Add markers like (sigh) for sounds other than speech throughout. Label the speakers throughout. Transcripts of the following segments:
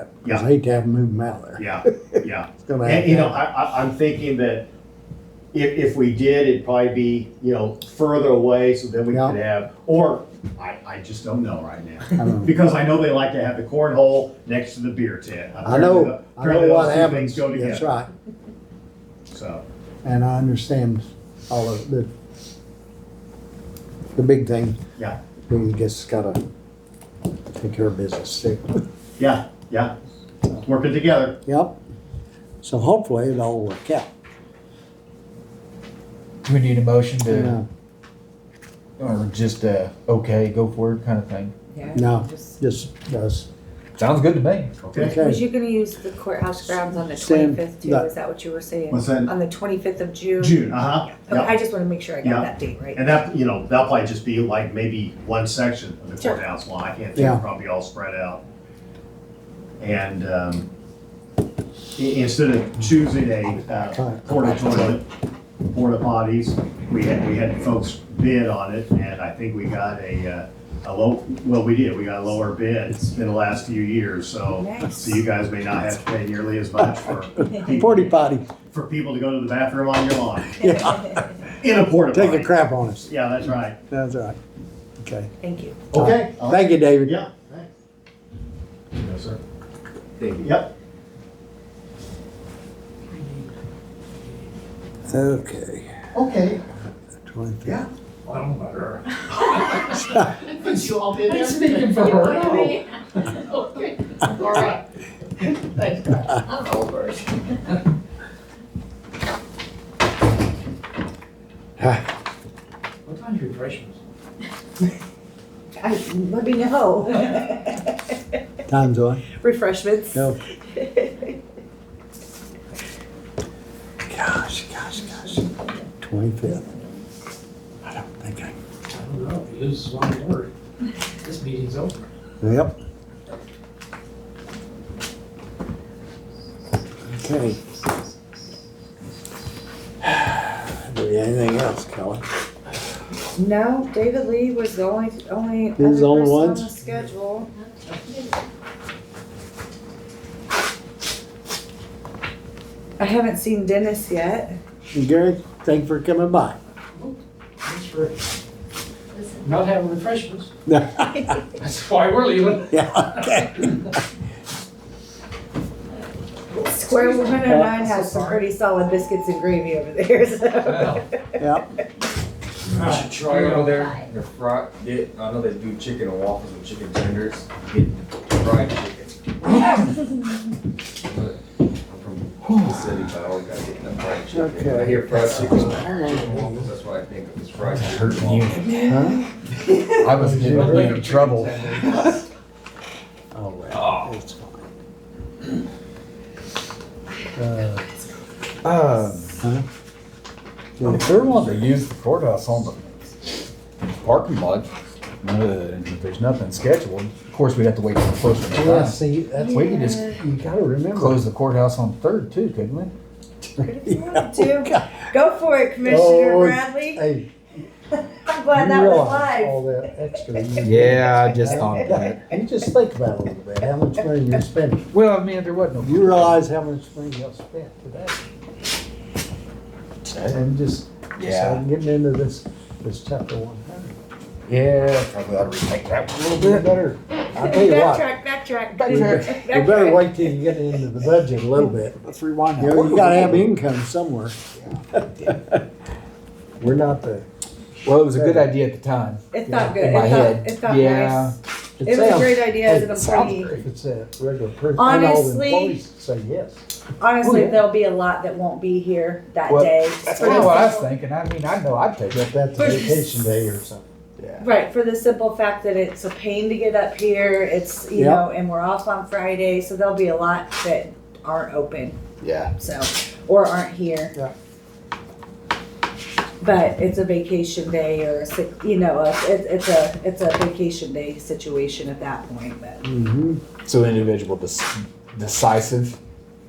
Speaker 1: Cause I
Speaker 2: Yeah.
Speaker 1: hate to have them move them out of there.
Speaker 2: Yeah,
Speaker 1: (laughs)
Speaker 2: yeah.
Speaker 1: It's gonna
Speaker 2: And, you know,
Speaker 1: happen.
Speaker 2: I, I, I'm thinking that if, if we did, it'd probably be, you know, further away, so then we
Speaker 1: Yeah.
Speaker 2: could have, or, I, I just don't know right now.
Speaker 1: I know.
Speaker 2: Because I know they like to have the cornhole next to the beer tent.
Speaker 1: I know,
Speaker 2: Apparently the-
Speaker 1: I know
Speaker 2: apparently
Speaker 1: what
Speaker 2: those two
Speaker 1: happens.
Speaker 2: Things go
Speaker 1: That's
Speaker 2: together,
Speaker 1: right.
Speaker 2: so,
Speaker 1: And I understand all of the, the big thing.
Speaker 2: Yeah.
Speaker 1: We just gotta take care of business too. (laughs)
Speaker 2: yeah, yeah, working together.
Speaker 1: Yep. So hopefully it'll all work out.
Speaker 3: Do we need a motion to,
Speaker 1: No,
Speaker 3: or just a, okay, go for it kind of thing?
Speaker 4: Yeah.
Speaker 1: No.
Speaker 4: just-
Speaker 1: Just us.
Speaker 3: Sounds good to me.
Speaker 2: Okay.
Speaker 4: Was
Speaker 1: Okay.
Speaker 4: you gonna use the courthouse grounds on the
Speaker 1: Sam,
Speaker 4: twenty-fifth too?
Speaker 1: that-
Speaker 4: Is that what you were saying?
Speaker 2: What's that?
Speaker 4: On the twenty-fifth of June?
Speaker 2: June, uh-huh,
Speaker 4: Okay,
Speaker 2: yeah.
Speaker 4: I just wanna make sure I
Speaker 2: Yeah.
Speaker 4: got that date right.
Speaker 2: And that, you know, that'll probably just be like maybe one section of the
Speaker 4: Sure.
Speaker 2: courthouse lawn, I can't
Speaker 1: Yeah.
Speaker 2: think, probably all spread out. And, um, i- instead of choosing a, uh, porta toilet, porta potties, we had, we had folks bid on it, and I think we got a, uh, a low, well, we did, we got a lower bid in the last few years, so,
Speaker 4: Nice.
Speaker 2: so you guys may not have to pay nearly as
Speaker 1: (laughs)
Speaker 2: much for.
Speaker 1: Forty potty.
Speaker 2: For people to go to the bathroom on your lawn, in a porta potty.
Speaker 1: Take a crap on us.
Speaker 2: Yeah, that's right.
Speaker 1: That's all right. Okay.
Speaker 4: (laughs) Thank you.
Speaker 2: Okay.
Speaker 1: Thank you, David.
Speaker 2: Yeah, thanks. Yes, sir.
Speaker 5: David.
Speaker 2: Yep,
Speaker 1: Okay.
Speaker 2: okay,
Speaker 1: 23.
Speaker 2: yeah.
Speaker 5: I don't know about her.
Speaker 2: (laughs) But you all did
Speaker 5: I'm speaking for her. Oh.
Speaker 6: Okay, all right. Thanks, guys. I'm over it.
Speaker 5: What time's refreshments?
Speaker 4: I, let me know.
Speaker 1: (sighs)
Speaker 4: (laughs)
Speaker 1: Time's on.
Speaker 4: Refreshments.
Speaker 1: No. Gosh, gosh, gosh. Twenty-fifth. I don't think I,
Speaker 5: I don't know. He loses one word. This meeting's over.
Speaker 1: yep. Okay. (sighs) Do we have anything else, Kelly?
Speaker 4: (laughs) No, David Lee was the only, only other
Speaker 1: He's
Speaker 4: person
Speaker 1: the only
Speaker 4: on
Speaker 1: ones?
Speaker 4: the schedule. I haven't seen Dennis yet.
Speaker 1: And Gary, thank you for coming by.
Speaker 5: Thanks for not having refreshments.
Speaker 1: (laughs) Yeah,
Speaker 5: That's why we're leaving.
Speaker 1: okay.
Speaker 4: Square one hundred nine has some pretty solid biscuits and gravy over there, (laughs) so.
Speaker 3: Wow.
Speaker 1: Yep,
Speaker 5: All
Speaker 7: You should
Speaker 5: right,
Speaker 7: try
Speaker 5: here we
Speaker 7: over
Speaker 5: go.
Speaker 7: there, the fry, get, I know they do chicken and waffles with chicken tenders, get fried chicken. But I'm from the city, but I always gotta get that fried chicken. When I hear fried chicken, chicken and waffles, that's what I think of, is fried chicken and waffles.
Speaker 1: huh?
Speaker 3: I was getting (laughs) in trouble.
Speaker 1: Oh, well, it's fine. Uh,
Speaker 3: Um,
Speaker 1: huh?
Speaker 3: if they're wanting to use the courthouse on the parking lot, uh, and if there's nothing scheduled, of course, we'd have to wait till closer to
Speaker 1: Yeah,
Speaker 3: time.
Speaker 1: see, that's,
Speaker 3: We could just
Speaker 1: you gotta (laughs) remember.
Speaker 3: close the courthouse on Third too, couldn't we?
Speaker 4: Two. Go for it, Commissioner
Speaker 1: Oh,
Speaker 4: Bradley.
Speaker 1: Hey,
Speaker 4: I'm glad
Speaker 1: you Oh,
Speaker 4: that was
Speaker 1: realize
Speaker 4: live.
Speaker 1: all that
Speaker 4: (laughs)
Speaker 1: extra. you-
Speaker 3: Yeah, I just thought of that.
Speaker 1: And just think about it a little bit, how much money you're spending.
Speaker 3: Well, I mean, there wasn't
Speaker 1: (laughs)
Speaker 3: no.
Speaker 1: You realize how much money y'all spent today. And just, just
Speaker 3: Yeah.
Speaker 1: I'm getting into this, this chapter one hundred.
Speaker 3: Yeah, probably ought to retake that one a little bit.
Speaker 1: We better, I tell you what,
Speaker 4: Backtrack, backtrack,
Speaker 1: we
Speaker 4: backtrack.
Speaker 1: be- we better wait till you get into the budget a little bit.
Speaker 3: Let's rewind.
Speaker 1: You know, you gotta have income somewhere. We're not the,
Speaker 3: Well, it was a good idea at the time.
Speaker 4: It felt good.
Speaker 3: In
Speaker 4: It
Speaker 3: my
Speaker 4: felt,
Speaker 3: head.
Speaker 4: it felt
Speaker 3: Yeah.
Speaker 4: nice.
Speaker 1: it
Speaker 4: It was a
Speaker 1: sounds,
Speaker 4: great idea as an employee.
Speaker 1: if it's a regular person, I know the
Speaker 4: Honestly-
Speaker 1: employees say yes.
Speaker 4: Honestly,
Speaker 3: Oh, yeah.
Speaker 4: there'll be a lot that won't be here that
Speaker 3: Well,
Speaker 4: day.
Speaker 3: That's
Speaker 4: For
Speaker 3: kind of
Speaker 4: the
Speaker 3: what I was
Speaker 4: simple-
Speaker 3: thinking. I mean, I know I'd take it.
Speaker 1: If that's a
Speaker 4: But-
Speaker 1: vacation day or something.
Speaker 3: Yeah.
Speaker 4: Right, for the simple fact that it's a pain to get up here, it's, you
Speaker 1: Yeah.
Speaker 4: know, and we're off on Friday, so there'll be a lot that aren't open,
Speaker 3: Yeah.
Speaker 4: so, or aren't here.
Speaker 1: Yeah.
Speaker 4: But it's a vacation day or a sick, you know, a- it, it's a, it's a vacation day situation at that point, but.
Speaker 1: Mm-hmm.
Speaker 3: So individual dec- decisive,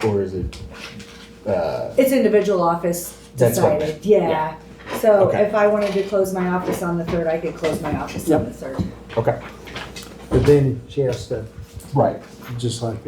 Speaker 3: or is it? Uh,
Speaker 4: It's individual office
Speaker 3: That's what I
Speaker 4: decided, yeah. So
Speaker 3: Okay.
Speaker 4: if I wanted to close my office on the third, I could close my office on the third.
Speaker 3: okay.
Speaker 1: But then she has to,
Speaker 3: Right.
Speaker 1: just like